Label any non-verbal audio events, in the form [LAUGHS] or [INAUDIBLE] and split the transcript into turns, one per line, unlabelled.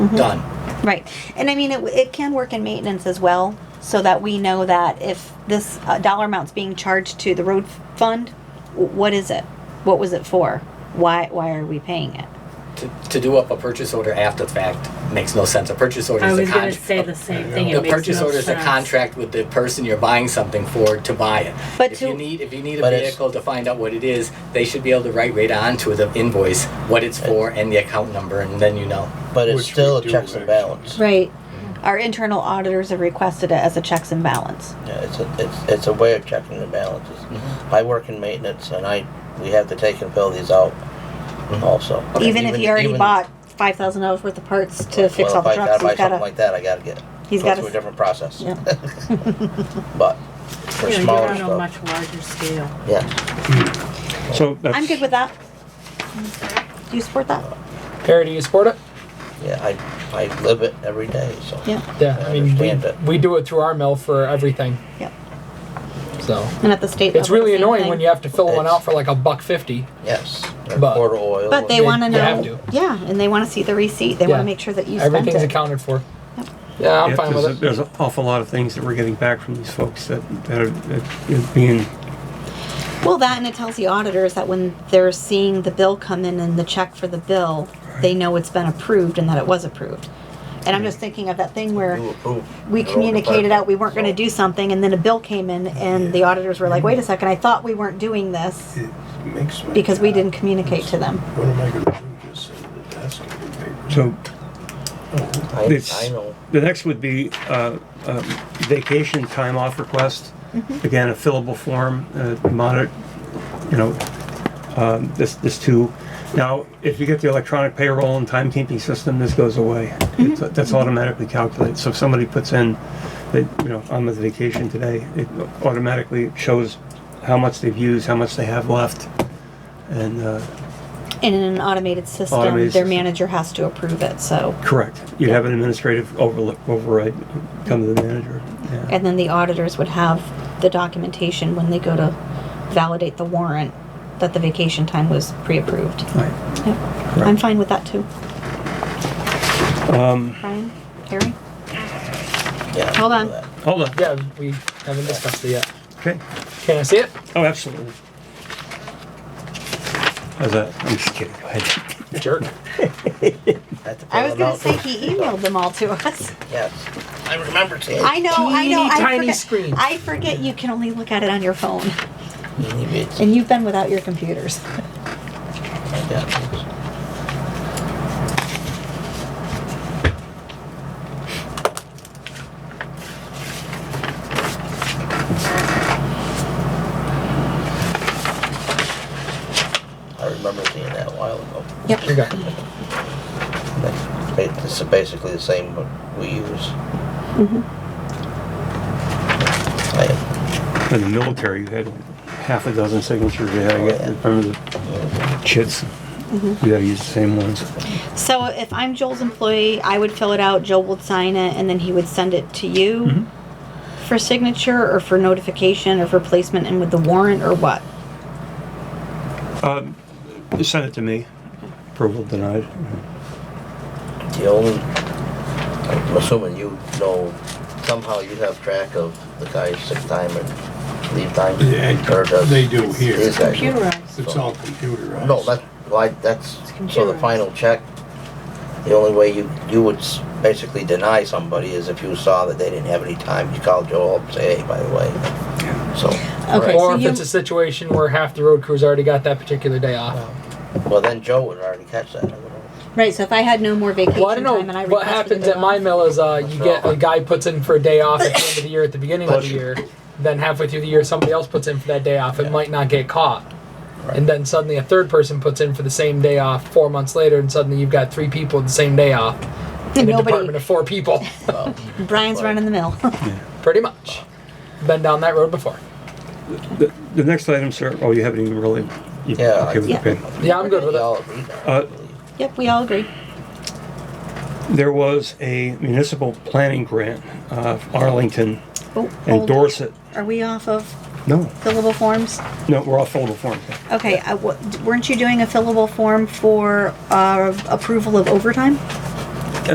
Mm-hmm.
done.
Right. And I mean, it, it can work in maintenance as well, so that we know that if this uh, dollar amount's being charged to the road fund, w- what is it? What was it for? Why, why are we paying it?
To, to do up a purchase order after the fact makes no sense. A purchase order
I
is a
was gonna
contract.
say the same thing. It
The
makes
purchase
no
order is a
sense.
contract with the person you're buying something for to buy it.
But
If
to-
you need, if you need a
But it's-
vehicle to find out what it is, they should be able to write right onto the invoice what
Uh,
it's for and the account number, and then you know.
But it's
Which we
still a
do,
checks and
actually.
balance.
Right. Our internal auditors have requested it as a checks and balance.
Yeah, it's a, it's, it's a way of checking the balances. I work in maintenance and I, we have to take and fill these out also.
Even if you already
even-
bought five thousand dollars worth of parts to fix
well,
all the
if
trucks,
I gotta buy
you've
something
gotta,
like that, I gotta get,
he's
go
gotta
through a
s-
different process.
yeah.
[LAUGHS] But for
Yeah,
smaller
You're on a
stuff,
much larger scale.
yeah.
So that's.
I'm good with that. Do you support that?
Perry, do you support it?
Yeah, I, I live it every day, so.
Yeah.
Yeah,
I
I mean, we,
understand it.
we do it through our mill for everything,
Yep.
so.
And at the state level.
It's really
the same
annoying
thing.
when you have to fill one
It's-
out for like a buck fifty.
Yes, or
But-
quarter oil.
But they
They-
wanna
you have
know, yeah, and they wanna see the receipt. They wanna
Yeah.
make sure that you spent
Everything's
it.
accounted for. Yeah, I'm
Yeah,
fine
there's a-
with it.
There's an awful lot of things that we're getting back from these folks that, that are that is being,
Well, that and it tells the auditors that when they're seeing the bill come in and the check for the bill, they know it's been approved and that it was approved. And I'm just thinking of that thing where
You approve
we
your own
communicated out we weren't gonna
department,
do something and then a bill came in and the auditors were like, wait a second, I thought we weren't doing this
It makes my
because we
job-
didn't communicate to them.
What am I gonna do? Just sit at the desk and get papers?
so
Oh,
so
It's-
I, I know.
the next would be uh, um, vacation time off request. Again, a fillable form, uh, monitor, you know, um, this, this too. Now, if you get the electronic payroll and timekeeping system, this goes away. It's- That's automatically calculated. So if somebody puts in, that, you know, I'm on vacation today, it automatically shows how much they've used, how much they have left. And, uh,
And in an automated system,
Automated
their
system.
manager has to approve it, so.
Correct. You'd have an administrative overlook, override, come to the manager. Yeah.
And then the auditors would have the documentation when they go to validate the warrant that the vacation time was pre-approved.
Right.
Yep. I'm fine with that too.
Um,
Brian, Harry?
Yeah, I
Hold
know
on.
that.
Hold on.
Yeah, we haven't discussed it yet.
Okay.
Can I see it?
Oh, absolutely. How's that? I'm just kidding. Go ahead.
Jerk.
Have to
I
fill
was
it
gonna
out
say
first.
he emailed them all to
[LAUGHS]
us.
Yes, I remember seeing.
I know, I know,
Teeny
I
tiny
forget.
screen.
I forget you can only look at it on your phone
Teeny bits.
and you've been without your computers.
Yeah. I remember seeing that a while ago.
Yep.
Here you go.
That's ba- It's basically the same what we use. I-
In the military, you had half a dozen signatures you had to get. Remember the chits? You gotta use the same ones.
So if I'm Joel's employee, I would fill it out, Joel would sign it, and then he would send it to you
Mm-hmm.
for signature or for notification or for placement and with the warrant or what?
Um, Send it to me. Approval denied.
The only, I'm assuming you know, somehow you have track of the guy's sick time and leave time?
Yeah,
or does-
they do here.
these guys do?
Computerized.
It's all computerized.
No, that, why, that's,
It's
so the
computerized.
final check, the only way you, you would s- basically deny somebody is if you saw that they didn't have any time, you called Joel up and say, hey, by the way, so.
Okay, so
Or if
you,
it's a situation where half the road crew's already got that particular day off.
Well, then Joe would already catch that. I would've-
right, so if I had no more vacation
Well, I don't
time and I
know, what
requested
happens
it
at my
off-
mill is, uh, you get, a guy puts in for a day off at the end of the year, at the beginning of the
Bless you.
year. Then halfway through the year, somebody else puts in for that day off, it might not get caught. And then suddenly a third person puts in for the same day off four months later, and suddenly you've got three people the same day off. In a department
Nobody,
of four people,
Brian's running the mill. [LAUGHS]
pretty much. Been down that road before.
The, the next item, sir, oh, you haven't even really. you-
Yeah,
Okay with the
Yeah.
pay.
Yeah, I'm good with
We
it.
all agreed on it.
Uh,
Yep, we all agree.
There was a municipal planning grant, uh, Arlington
Oh,
and
hold.
Dorset.
Are we off of
No,
fillable forms?
no, we're all fillable form.
Okay, I w- weren't you doing a fillable form for, uh, approval of overtime?